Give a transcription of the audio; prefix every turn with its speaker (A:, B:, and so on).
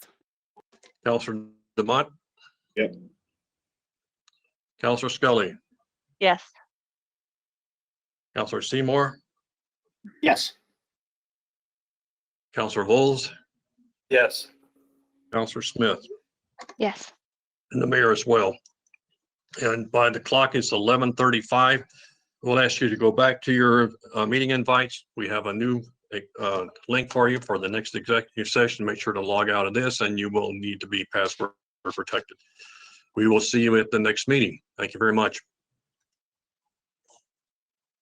A: Counselor Demott?
B: Yep.
A: Counselor Scully,
C: Yes.
A: Counselor Seymour,
B: Yes.
A: Counselor Vols,
B: Yes.
A: Counselor Smith,
C: Yes.
A: and the mayor as well. And by the clock, it's eleven thirty-five. We'll ask you to go back to your uh, meeting invites. We have a new uh, link for you for the next executive session. Make sure to log out of this, and you will need to be password protected. We will see you at the next meeting. Thank you very much.